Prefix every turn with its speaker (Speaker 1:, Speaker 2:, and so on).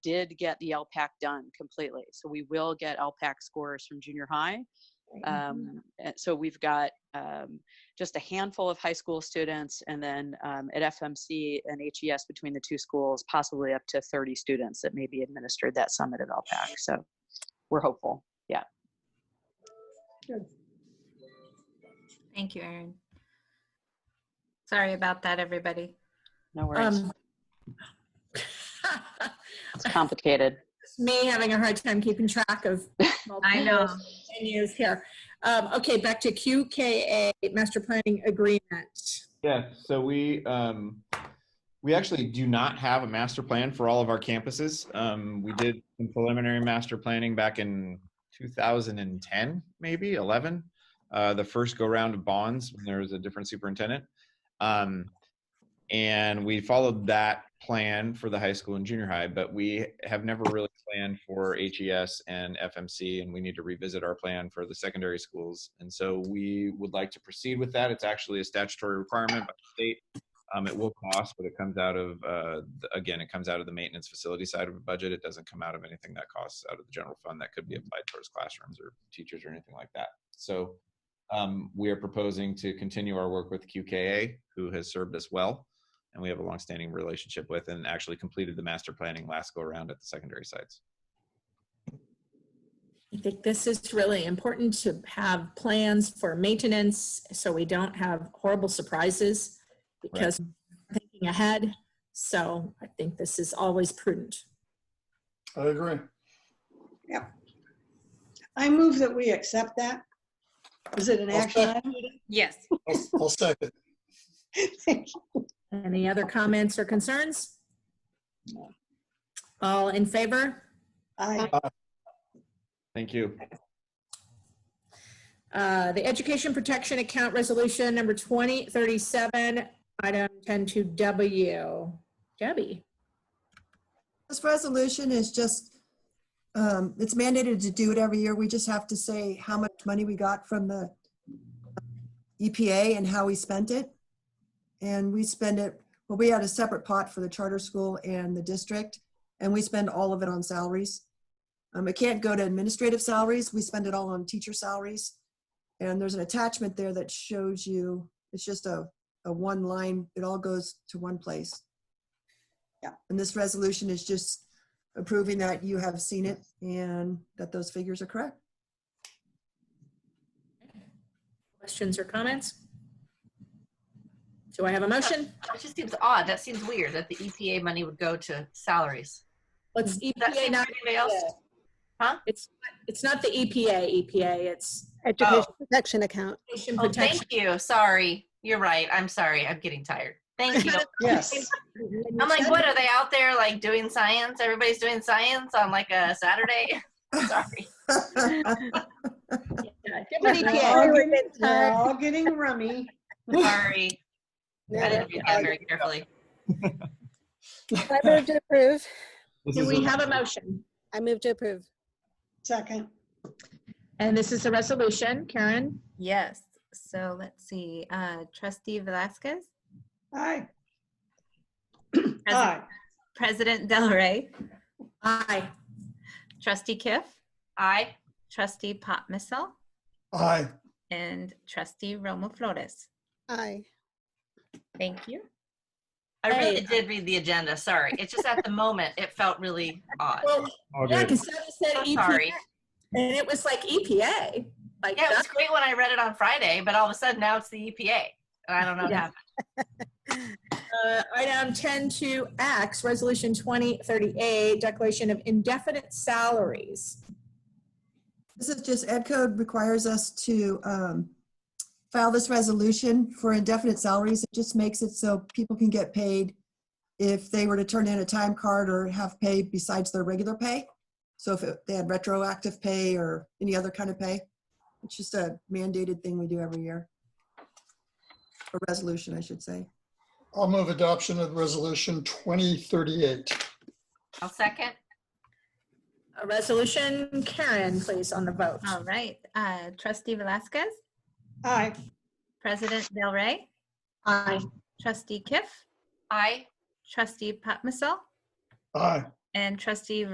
Speaker 1: did get the LPAC done completely. So we will get LPAC scores from junior high.
Speaker 2: Mm-hmm.
Speaker 1: Um, and so we've got um, just a handful of high school students, and then um, at FMC and HES between the two schools, possibly up to 30 students that may be administered that summit at LPAC. So we're hopeful.
Speaker 2: Thank you, Erin. Sorry about that, everybody.
Speaker 1: No worries.
Speaker 3: Um,
Speaker 1: it's complicated.
Speaker 3: Me having a hard time keeping track of.
Speaker 2: I know.
Speaker 3: Venues here. Um, okay, back to QKA, master planning agreement.
Speaker 4: Yeah, so we, um, we actually do not have a master plan for all of our campuses. Um, we did some preliminary master planning back in 2010, maybe 11. Uh, the first go round of bonds when there was a different superintendent. Um, and we followed that plan for the high school and junior high, but we have never really planned for HES and FMC, and we need to revisit our plan for the secondary schools. And so we would like to proceed with that. It's actually a statutory requirement by the state. Um, it will cost, but it comes out of, uh, th- again, it comes out of the maintenance facility side of the budget. It doesn't come out of anything that costs out of the general fund that could be applied towards classrooms or teachers or anything like that. So um, we are proposing to continue our work with QKA, who has served us well and we have a longstanding relationship with and actually completed the master planning last go around at the secondary sites.
Speaker 3: I think this is really important to have plans for maintenance so we don't have horrible surprises because we're thinking ahead. So I think this is always prudent.
Speaker 5: I agree.
Speaker 6: I move that we accept that. Is it an
Speaker 5: I'll
Speaker 6: action item?
Speaker 2: Yes.
Speaker 5: I'll- I'll second.
Speaker 6: Thank you.
Speaker 3: Any other comments or concerns? All in favor?
Speaker 6: I,
Speaker 7: Uh,
Speaker 4: Thank you.
Speaker 3: Uh, The Education Protection Account Resolution Number 2037, Item 102W. Debbie?
Speaker 7: This resolution is just, um, it's mandated to do it every year. We just have to say how much money we got from the EPA and how we spent it. And we spend it, well, we had a separate pot for the charter school and the district, and we spend all of it on salaries. Um, It can't go to administrative salaries. We spend it all on teacher salaries. And there's an attachment there that shows you, it's just a, a one line, it all goes to one place. And this resolution is just approving that you have seen it and that those figures are correct.
Speaker 3: Questions or comments? Do I have a motion?
Speaker 8: That just seems odd. That seems weird that the EPA money would go to salaries.
Speaker 3: Let's EPA,
Speaker 8: That seems
Speaker 3: not, E
Speaker 8: like anybody else.
Speaker 3: it's not the E EPA, EPA, it's
Speaker 9: Education Protection Account.
Speaker 3: Education
Speaker 8: Oh,
Speaker 3: Protection.
Speaker 8: thank you. Sorry. You're right. I'm sorry. I'm getting tired. Thank you.
Speaker 6: yes.
Speaker 8: I'm like, what are they out there like doing science? Everybody's doing science on like a Saturday. sorry.
Speaker 3: Yeah,
Speaker 9: But
Speaker 8: E
Speaker 3: different-
Speaker 6: We're
Speaker 9: EPA,
Speaker 6: all
Speaker 9: we were
Speaker 6: getting-
Speaker 9: getting
Speaker 6: We're
Speaker 9: tired.
Speaker 6: all getting rummy.
Speaker 8: Sorry. I didn't read that very carefully.
Speaker 9: I move to approve.
Speaker 4: This
Speaker 3: Do
Speaker 4: is
Speaker 3: we have a motion?
Speaker 9: I move to approve.
Speaker 6: Second.
Speaker 3: And this is a resolution. Karen?
Speaker 2: Yes. So let's see. Uh, Trustee Velasquez,
Speaker 6: Aye.
Speaker 2: President,
Speaker 6: Aye.
Speaker 2: President Del Rey,
Speaker 3: Aye.
Speaker 2: Trustee Kiff,
Speaker 8: Aye.
Speaker 2: Trustee Pat Missel,
Speaker 5: Aye.
Speaker 2: and Trustee Romo Flores.
Speaker 9: Aye.
Speaker 2: Thank you.
Speaker 8: I really
Speaker 3: Hey.
Speaker 8: did read the agenda. Sorry. It's just at the moment it felt really odd.
Speaker 3: Well,
Speaker 4: all
Speaker 3: yeah,
Speaker 4: good.
Speaker 3: because Debbie said
Speaker 8: I'm
Speaker 3: EPA.
Speaker 8: sorry.
Speaker 3: And it was like EPA, like
Speaker 8: Yeah, it was
Speaker 3: that-
Speaker 8: great when I read it on Friday, but all of a sudden now it's the EPA. And I don't know what
Speaker 3: Yeah.
Speaker 8: happened.
Speaker 3: uh, item ten to X, resolution twenty thirty-eight, declaration of indefinite salaries.
Speaker 7: This is just, Ed Code requires us to um, file this resolution for indefinite salaries. It just makes it so people can get paid if they were to turn in a time card or have pay besides their regular pay. So if it- they had retroactive pay or any other kind of pay, it's just a mandated thing we do every year. A resolution, I should say.
Speaker 5: I'll move adoption of resolution 2038.
Speaker 8: I'll second.
Speaker 3: A resolution, Karen, please, on the vote.
Speaker 2: All right. Uh, Trustee Velasquez,
Speaker 6: Aye.
Speaker 2: President Del Rey,
Speaker 3: Aye.
Speaker 2: Trustee Kiff,
Speaker 8: Aye.
Speaker 2: Trustee Pat Missel,
Speaker 5: Aye.
Speaker 2: and trustee